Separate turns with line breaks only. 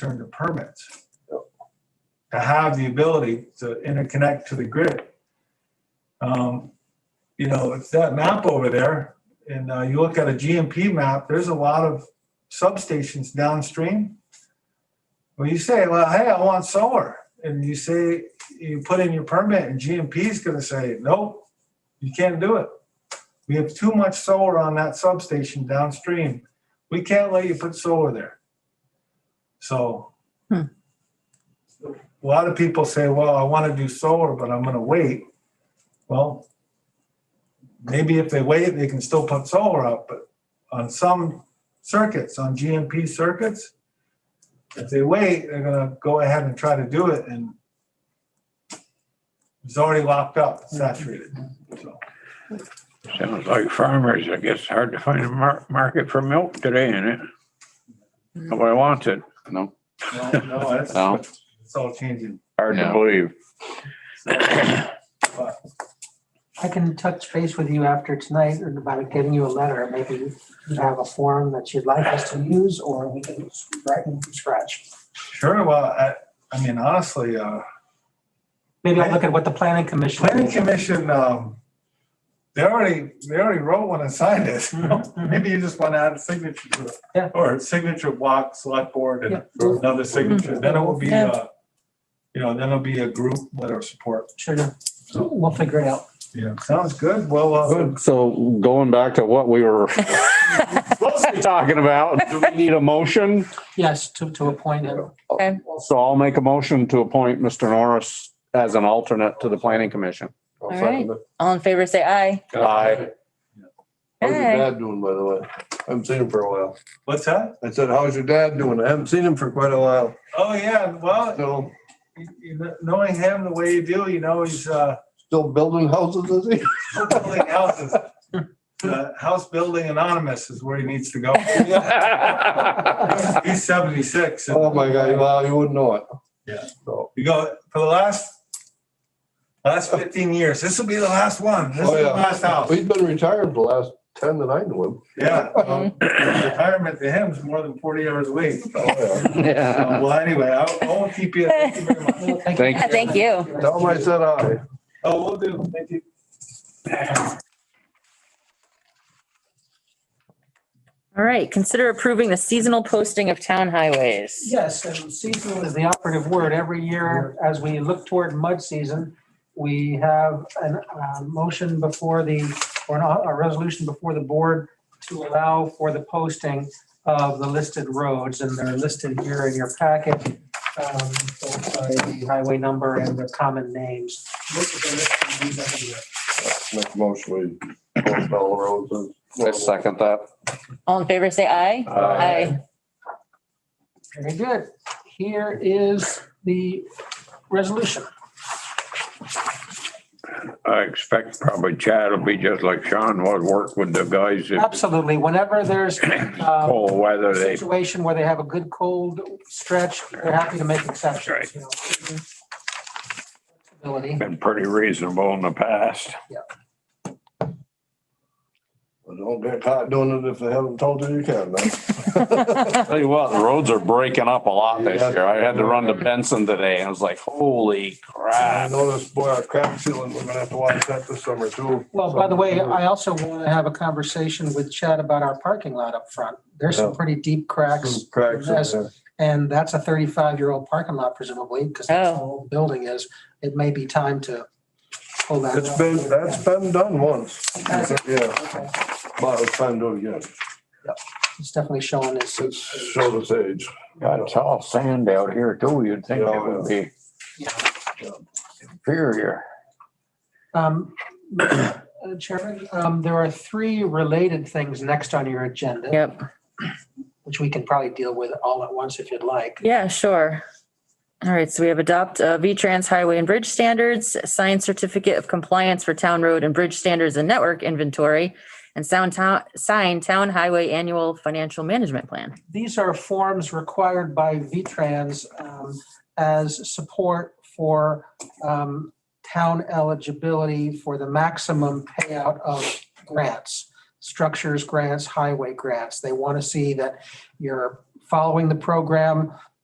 turn to permits. To have the ability to interconnect to the grid. Um, You know, it's that map over there, and uh, you look at a GMP map, there's a lot of substations downstream. Well, you say, well, hey, I want solar, and you say, you put in your permit, and GMP is gonna say, nope, you can't do it. We have too much solar on that substation downstream. We can't let you put solar there. So.
Hmm.
A lot of people say, well, I want to do solar, but I'm going to wait. Well, maybe if they wait, they can still put solar up, but on some circuits, on GMP circuits, if they wait, they're going to go ahead and try to do it and it's already locked up, saturated. So.
Sounds like farmers, I guess, hard to find a mar- market for milk today, isn't it? Nobody wants it.
No,
No, no, that's,
No.
it's all changing.
Hard to
Yeah.
believe.
I can touch base with you after tonight about getting you a letter. Maybe you have a form that you'd like us to use or we can write them from scratch.
Sure, well, I, I mean, honestly, uh,
Maybe I'll look at what the planning commission.
planning commission, um, they already, they already wrote one and signed it. Maybe you just want to add a signature to it.
Mm-hmm. Yeah.
Or a signature block, select board and
Yeah. Mm-hmm.
another signature, then it will be,
Yeah.
uh, you know, then it'll be a group letter of support.
Sure, we'll figure it out.
Yeah. Sounds good. Well, uh,
so going back to what we were
mostly-
talking about, do we need a motion?
Yes, to, to appoint him.
So I'll make a motion to appoint Mr. Norris as an alternate to the planning commission.
I'll
All
second
All in favor, say aye.
it.
Aye.
How's your
Aye.
dad doing, by the way? I haven't seen him for a while.
what's that?
I said, how's your dad doing? I haven't seen him for quite a while.
Oh, yeah, well,
Still,
you- you kn- knowing him the way you do, you know, he's, uh,
still building houses, is he?
still building houses. Uh, House Building Anonymous is where he needs to go. He's 76. and-
Oh, my God, wow, you wouldn't know it.
Yeah.
So,
You go, for the last, last 15 years, this will be the last one. This is
Oh,
the
yeah.
last house.
he's been retired the last ten that I knew him.
Yeah. um, Retirement to him is more than 40 hours a week.
Oh, yeah.
So,
Yeah.
Well, anyway, I I won't keep you. Thank you very much.
Thank
Yeah, Thank you.
Tell him I said aye.
Oh, we'll do. Thank you.
All right, consider approving the seasonal posting of town highways.
Yes, and seasonal is the operative word. Every year, as we look toward mud season, we have an, a motion before the, or an- a resolution before the board to allow for the posting of the listed roads, and they're listed here in your packet. um, both by the Highway number and the common names. Most of them are listed every year.
Make a motion, we close all the roads. and-
I second that.
All in favor, say aye.
Aye.
Very good. Here is the resolution.
I expect probably Chad will be just like Sean was, work with the guys that
Absolutely, whenever there's um,
pull whether they,
situation where they have a good cold stretch, they're happy to make exceptions, you know. Flexibility.
been pretty reasonable in the past.
But Don't get caught doing it if they haven't told you you can.
Aye.
Tell you what, the roads are breaking up a lot this year. I had to run to Benson today and I was like, holy
Ah.
I
crap.
noticed, boy, our crack ceiling, we're gonna have to watch that this summer too.
Well, by the way, I also want to have a conversation with Chad about our parking lot up front. There's some
Yeah.
pretty deep cracks.
Oh. Some Cracks. in
Yes.
there.
And that's a thirty-five-year-old parking lot presumably, because that's how old the building is. It may be time to pull that.
It's
up.
been, that's been done once.
Has it?
Yeah,
Okay.
but it's time to do it again.
It's definitely showing its.
It's show its age.
God, it's all sand out here too. You'd think it would be inferior.
Um, uh, Chairman, um, there are three related things next on your agenda.
Yep,
which we can probably deal with all at once if you'd like.
yeah, sure. All right, so we have adopt uh, V-Trans highway and bridge standards, science certificate of compliance for town road and bridge standards and network inventory, and sound town, sign town highway annual financial management plan.
These are forms required by VTrans um, as support for um, town eligibility for the maximum payout of grants, structures grants, highway grants. They want to see that you're following the program,